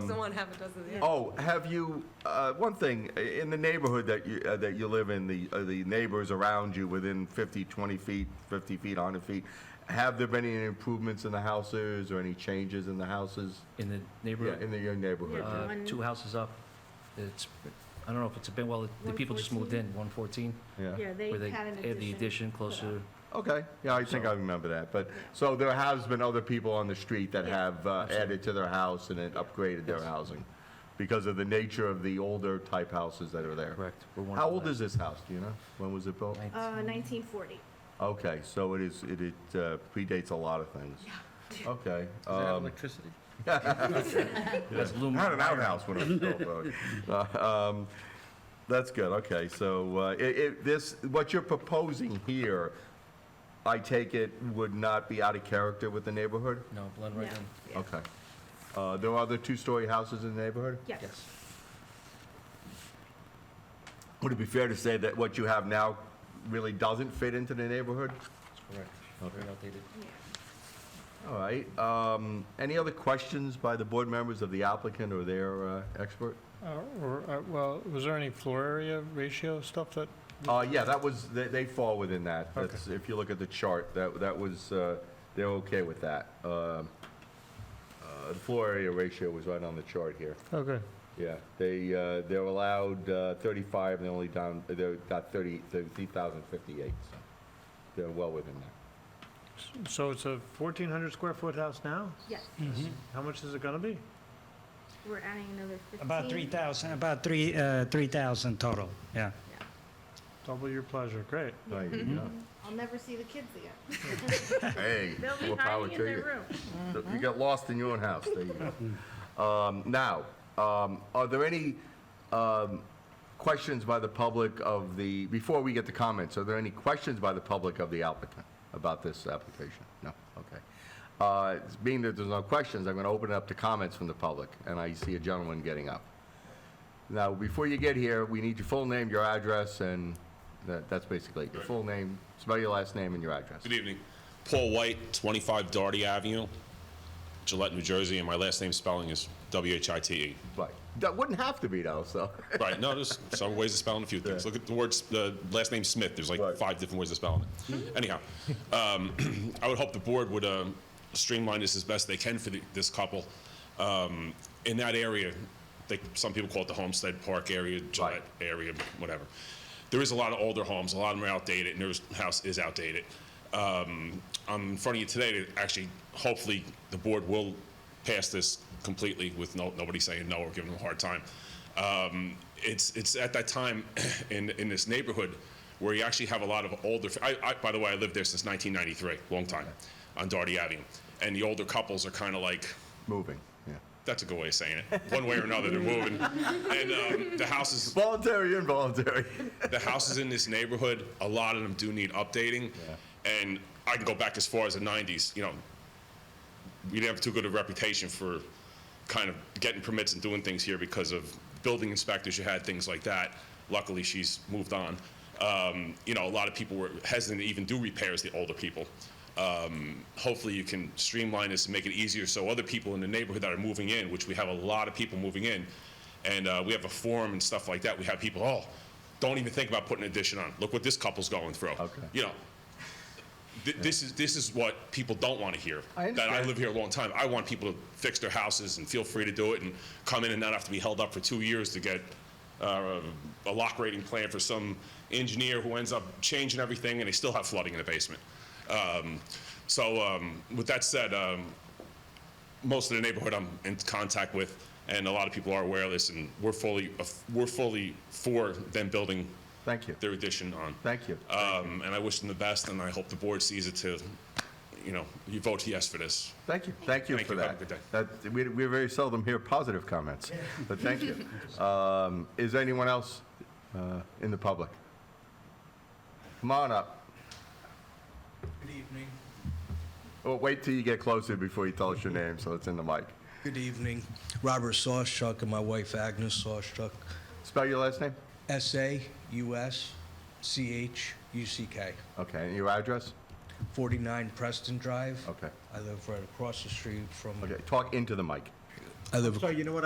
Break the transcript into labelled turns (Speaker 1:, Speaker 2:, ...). Speaker 1: Six of one, half a dozen of the other.
Speaker 2: Oh, have you, uh, one thing, i- in the neighborhood that you, uh, that you live in, the, uh, the neighbors around you within 50, 20 feet, 50 feet, 100 feet, have there been any improvements in the houses or any changes in the houses?
Speaker 3: in the
Speaker 2: Yeah,
Speaker 3: neighborhood.
Speaker 2: in the- your neighborhood?
Speaker 3: Uh,
Speaker 4: One-
Speaker 3: Two houses up, it's, I don't know if it's a bit, well, the people just moved in, 114,
Speaker 2: Yeah,
Speaker 4: Yeah, they
Speaker 3: where they
Speaker 4: had an addition.
Speaker 3: add the addition
Speaker 4: put
Speaker 3: closer.
Speaker 4: up.
Speaker 2: okay, yeah, I think I remember that, but, so there has been other people on the street that
Speaker 4: Yeah.
Speaker 2: have uh, added to their house and then upgraded their housing because of the nature of the older type houses that are there.
Speaker 3: Correct. We're one
Speaker 2: How
Speaker 3: of
Speaker 2: old
Speaker 3: that.
Speaker 2: is this house, do you know? When was it built?
Speaker 3: Nineteen- Um,
Speaker 4: Uh, 1940.
Speaker 2: Okay, so it is, it it uh, predates a lot of things. Okay. um,
Speaker 5: electricity?
Speaker 3: That's
Speaker 2: I had
Speaker 3: aluminum.
Speaker 2: an outhouse when I was built, though. Uh, um, That's good, okay, so uh, i i this, what you're proposing here, I take it, would not be out of character with the neighborhood?
Speaker 3: No, blend
Speaker 4: No.
Speaker 3: right in.
Speaker 4: Yeah.
Speaker 2: Okay. Uh, There are other two-story houses in the neighborhood?
Speaker 4: Yes.
Speaker 3: Yes.
Speaker 2: Would it be fair to say that what you have now really doesn't fit into the neighborhood?
Speaker 3: Correct. Very outdated.
Speaker 4: Yeah.
Speaker 2: All right, um, any other questions by the board members of the applicant or their uh, expert?
Speaker 5: Or, uh, well, was there any floor area ratio stuff that?
Speaker 2: Uh, yeah, that was, they, they fall within that. That's, if you look at the chart, that, that was, uh, they're okay with that. Um, uh, The floor area ratio was right on the chart here.
Speaker 5: Okay,
Speaker 2: Yeah, they, uh, they're allowed uh, 35, and they're only down, they're got 30, 30,058, so they're well within that.
Speaker 5: so it's a 1,400 square foot house now?
Speaker 4: Yeah,
Speaker 3: Hmm.
Speaker 5: How much is it gonna be?
Speaker 4: we're adding another 15.
Speaker 6: About 3,000, about three uh, 3,000 total, yeah.
Speaker 5: Double your pleasure, great.
Speaker 2: There you go.
Speaker 4: I'll never see the kids again.
Speaker 2: Hey,
Speaker 4: They'll be
Speaker 2: more power
Speaker 4: hiding
Speaker 2: to
Speaker 4: in their
Speaker 2: you.
Speaker 4: room.
Speaker 2: So You got lost in your own house, there you go. Um, Now, um, are there any um, questions by the public of the, before we get to comments, are there any questions by the public of the applicant about this application? No, okay. Uh, Being that there's no questions, I'm going to open it up to comments from the public, and I see a gentleman getting up. Now, before you get here, we need your full name, your address, and that- that's basically it. your full name, spell your last name and your address.
Speaker 7: Good evening. Paul White, 25 Doherty Avenue, Gillette, New Jersey, and my last name spelling is W-H-I-T-E.
Speaker 2: Right. That wouldn't have to be though, so.
Speaker 7: E. Right, no, there's some ways of spelling a few things.
Speaker 2: Yeah.
Speaker 7: Look at the words, the last name Smith, there's
Speaker 2: Right.
Speaker 7: like five different ways of spelling it. Anyhow, um, I would hope the board would um, streamline this as best they can for the- this couple. Um, In that area, they, some people call it the Homestead Park area, Gillette area, whatever. There is a lot of older homes, a lot of them are outdated, and their house is outdated. Um, I'm in front of you today to actually, hopefully, the board will pass this completely with no, nobody saying no or giving them a hard time. Um, it's, it's at that time in, in this neighborhood where you actually have a lot of older, I, I, by the way, I lived there since 1993, long time, on Darty Avenue. And the older couples are kind of like,
Speaker 2: Moving, yeah.
Speaker 7: that's a good way of saying it. One way or another, they're moving. And um, the houses,
Speaker 2: Voluntary, involuntary.
Speaker 7: the houses in this neighborhood, a lot of them do need updating. And I can go back as far as the 90s. You know, we didn't have too good a reputation for kind of getting permits and doing things here because of building inspectors you had, things like that. Luckily, she's moved on. Um, you know, a lot of people were hesitant to even do repairs, the older people. Um, hopefully, you can streamline this and make it easier so other people in the neighborhood that are moving in, which we have a lot of people moving in, and uh, we have a forum and stuff like that. We have people, oh, don't even think about putting an addition on. Look what this couple's going through.
Speaker 2: Okay.
Speaker 7: You know, th- this is this is what people don't want to hear.
Speaker 2: I
Speaker 7: that I
Speaker 2: understand.
Speaker 7: live here a long time. I want people to fix their houses and feel free to do it and come in and not have to be held up for two years to get uh, a lock rating plan for some engineer who ends up changing everything and they still have flooding in the basement. Um, so um, with that said, um, most of the neighborhood I'm in contact with, and a lot of people are aware of this, and we're fully uh, we're fully for them building
Speaker 2: Thank you.
Speaker 7: their addition on.
Speaker 2: Thank you.
Speaker 7: Um, and I wish them the best, and I hope the board sees it to, you know, you vote yes for this.
Speaker 2: Thank you. Thank you
Speaker 7: Thank
Speaker 2: for
Speaker 7: you.
Speaker 2: that.
Speaker 7: Have a good
Speaker 2: That, we, we very seldom hear positive comments, but thank you. Um, is there anyone else, uh, in the public? Come on up.
Speaker 8: Good evening.
Speaker 2: Well, Oh, wait till you get closer before you tell us your name, so it's in the mic.
Speaker 8: Good evening. Robert Sawchuck and my wife Agnes Sawchuck.
Speaker 2: Spell your last name?
Speaker 8: S A U S C H U C K.
Speaker 2: Okay, and your address?
Speaker 8: 49 Preston Drive.
Speaker 2: Okay.
Speaker 8: I live right across the street from.
Speaker 2: Okay, talk into the mic.
Speaker 8: I live
Speaker 5: So you know what